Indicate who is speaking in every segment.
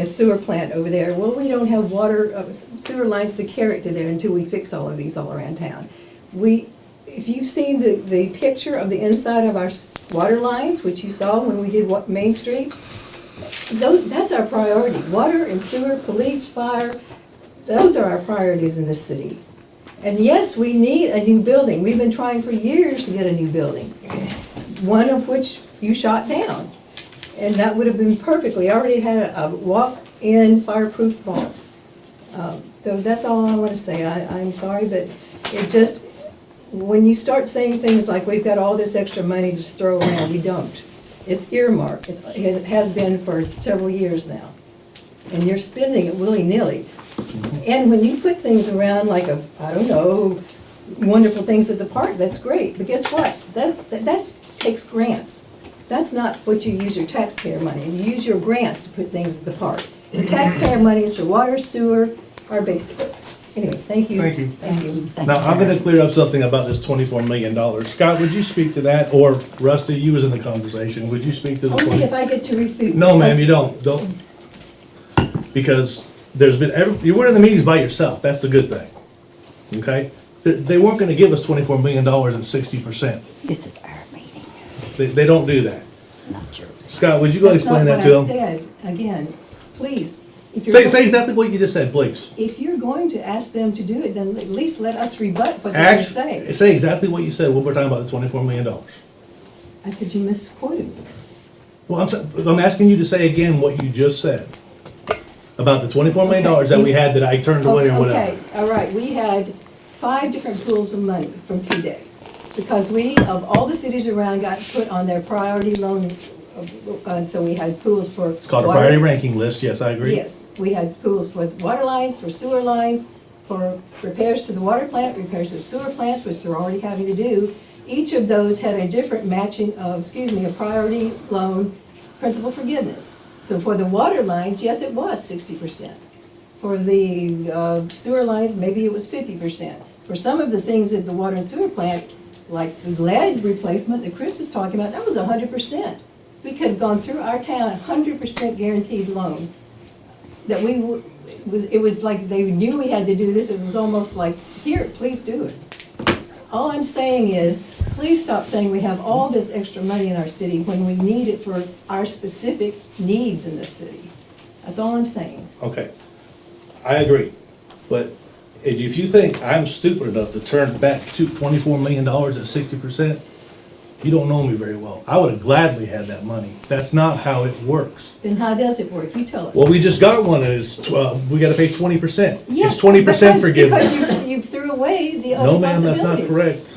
Speaker 1: a sewer plant over there, well, we don't have water, uh, sewer lines to carry it to there until we fix all of these all around town. We, if you've seen the, the picture of the inside of our s- water lines, which you saw when we did what, Main Street, those, that's our priority, water and sewer, police, fire, those are our priorities in this city. And yes, we need a new building, we've been trying for years to get a new building, one of which you shot down. And that would have been perfectly, I already had a walk-in fireproof vault. Um, So that's all I want to say, I, I'm sorry, but it just, when you start saying things like, we've got all this extra money to just throw around, we don't. It's earmarked, It's- it has been for several years now. And you're spending it willy-nilly. And when you put things around like a, I don't know, wonderful things at the park, that's great, but guess what? That, that that's- takes grants. That's not what you use your taxpayer money, you use your grants to put things at the park. Your taxpayer money is your water, sewer, our basics. Anyway, thank you.
Speaker 2: Thank you.
Speaker 1: Thank you.
Speaker 3: Thank
Speaker 2: Now,
Speaker 3: you,
Speaker 2: I'm
Speaker 3: Sarah.
Speaker 2: gonna clear up something about this twenty-four million dollars. Scott, would you speak to that, or Rusty, you was in the conversation, would you speak to the
Speaker 1: Only if
Speaker 2: twenty?
Speaker 1: I get to refute.
Speaker 2: No, ma'am, you
Speaker 1: because-
Speaker 2: don't, don't. Because there's been, every- you were in the meetings by yourself, that's the good thing, okay? They, they weren't gonna give us twenty-four million dollars and sixty percent.
Speaker 3: This is our meeting,
Speaker 2: They, they don't do that.
Speaker 3: not yours.
Speaker 2: Scott, would you go explain that to
Speaker 1: That's not what
Speaker 2: them?
Speaker 1: I said, again, please. if you're
Speaker 2: Say,
Speaker 1: going-
Speaker 2: say exactly what you just said, please.
Speaker 1: If you're going to ask them to do it, then at least let us rebut what they're
Speaker 2: Ask,
Speaker 1: saying.
Speaker 2: say exactly what you said, when we're talking about the twenty-four million dollars.
Speaker 1: I said you misquoted. me.
Speaker 2: Well, I'm, s- I'm asking you to say again what you just said about the twenty-four million dollars that we had that I turned away or
Speaker 1: Okay,
Speaker 2: whatever.
Speaker 1: all right, we had five different pools of money from T-Day. Because we, of all the cities around, got put on their priority loan, uh, and so we had pools for.
Speaker 2: It's called a priority ranking list, yes, I agree.
Speaker 1: Yes, we had pools for water lines, for sewer lines, for repairs to the water plant, repairs to sewer plants, which they're already having to do. Each of those had a different matching of, excuse me, a priority loan principal forgiveness. So for the water lines, yes, it was sixty percent. For the uh, sewer lines, maybe it was fifty percent. For some of the things at the water and sewer plant, like the lead replacement that Chris is talking about, that was hundred percent. We could have gone through our town, hundred percent guaranteed loan that we, w- it was, it was like they knew we had to do this, it was almost like, here, please do it. All I'm saying is, please stop saying we have all this extra money in our city when we need it for our specific needs in this city. That's all I'm saying.
Speaker 2: Okay, I agree, but if you- if you think I'm stupid enough to turn back to twenty-four million dollars at sixty percent, you don't know me very well. I would have gladly had that money. That's not how it works.
Speaker 1: Then how does it work? You tell us.
Speaker 2: Well, we just got one and it's, tw- uh, we gotta pay twenty percent.
Speaker 1: Yes,
Speaker 2: It's twenty percent
Speaker 1: because-
Speaker 2: forgiveness.
Speaker 1: Because you, you threw away the other
Speaker 2: No,
Speaker 1: possibility.
Speaker 2: ma'am, that's not correct.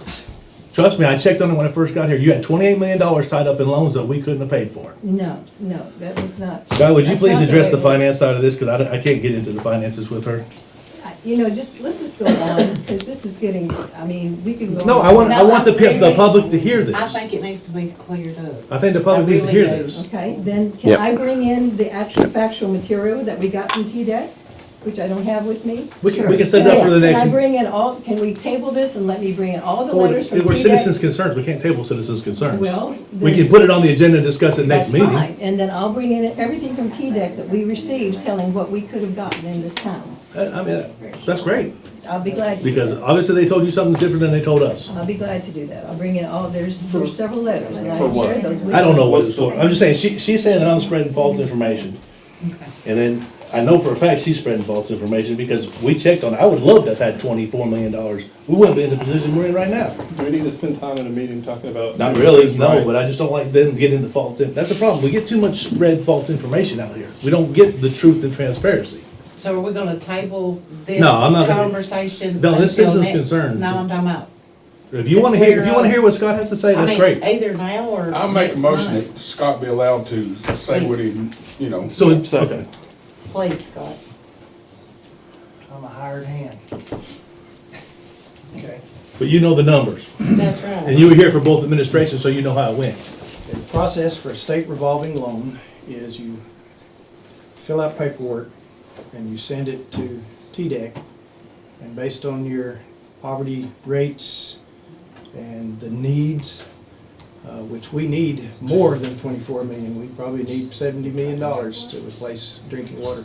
Speaker 2: Trust me, I checked on it when I first got here. You had twenty-eight million dollars tied up in loans that we couldn't have paid for.
Speaker 1: No, no, that was not.
Speaker 2: Guy, would you
Speaker 1: that's not
Speaker 2: please address
Speaker 1: way
Speaker 2: the
Speaker 1: it works.
Speaker 2: finance side of this, because I, don't- I can't get into the finances with her.
Speaker 1: You know, just, let's just go on, because this is getting, I mean, we can go.
Speaker 2: No,
Speaker 1: on.
Speaker 2: I want, I
Speaker 4: No,
Speaker 2: want the,
Speaker 4: I'm
Speaker 2: pub- the
Speaker 4: very-
Speaker 2: public to hear this.
Speaker 4: I
Speaker 2: I
Speaker 4: think it needs to be cleared up.
Speaker 2: think the public
Speaker 4: I
Speaker 2: needs to hear
Speaker 4: really do.
Speaker 2: this.
Speaker 1: Okay, then can
Speaker 5: Yep.
Speaker 1: I bring in the actual factual material that we got from TDEC, which I don't have with me?
Speaker 2: We can- we can set it up for the
Speaker 1: Yes,
Speaker 2: next-
Speaker 1: Can I bring in all, can we table this and let me bring in all the
Speaker 2: Well,
Speaker 1: letters from
Speaker 2: We're citizens'
Speaker 1: TDEC?
Speaker 2: concerns, we can't table citizens' concerns.
Speaker 1: Well,
Speaker 2: We can
Speaker 1: then,
Speaker 2: put it on the agenda and discuss it next
Speaker 1: that's
Speaker 2: meeting.
Speaker 1: fine, and then I'll bring in everything from TDEC that we received, telling what we could have gotten in this town.
Speaker 2: I I mean, that's great,
Speaker 1: I'll be glad to do
Speaker 2: because
Speaker 1: that.
Speaker 2: obviously they told you something different than they told us.
Speaker 1: I'll be glad to do that, I'll bring in all, there's, there's several letters, and I will
Speaker 6: what?
Speaker 1: share those with you.
Speaker 2: I don't know what it's for. I'm just saying, she, she's saying that I'm spreading false information. And then I know for a fact she's spreading false information because we checked on, it. I would love to have had twenty-four million dollars. We wouldn't be in the position we're in right now.
Speaker 6: Do we need to spend time in a meeting talking about?
Speaker 2: Not really, no, but I just don't like them getting the false, in- that's the problem. We get too much spread false information out here. We don't get the truth and transparency.
Speaker 4: So are we gonna table this
Speaker 2: No, I'm not gonna-
Speaker 4: conversation?
Speaker 2: No, this
Speaker 4: until
Speaker 2: citizen's
Speaker 4: next-
Speaker 2: concern.
Speaker 4: No, I'm talking about.
Speaker 2: If you wanna hear, if you wanna hear what Scott has to say,
Speaker 4: I
Speaker 2: that's
Speaker 4: mean,
Speaker 2: great.
Speaker 4: Either now or.
Speaker 7: I'll make a
Speaker 4: next
Speaker 7: motion
Speaker 4: month.
Speaker 7: that Scott be allowed to say what he, you know.
Speaker 2: So, it's- okay,
Speaker 4: Please, Scott.
Speaker 8: I'm a hired hand. Okay,
Speaker 2: but you know the numbers.
Speaker 4: That's
Speaker 2: And
Speaker 4: right.
Speaker 2: you were here for both administrations, so you know how it went.
Speaker 8: the process for a state revolving loan is you fill out paperwork and you send it to TDEC. And based on your poverty rates and the needs, uh, which we need more than twenty-four million. We probably need seventy million dollars to replace drinking water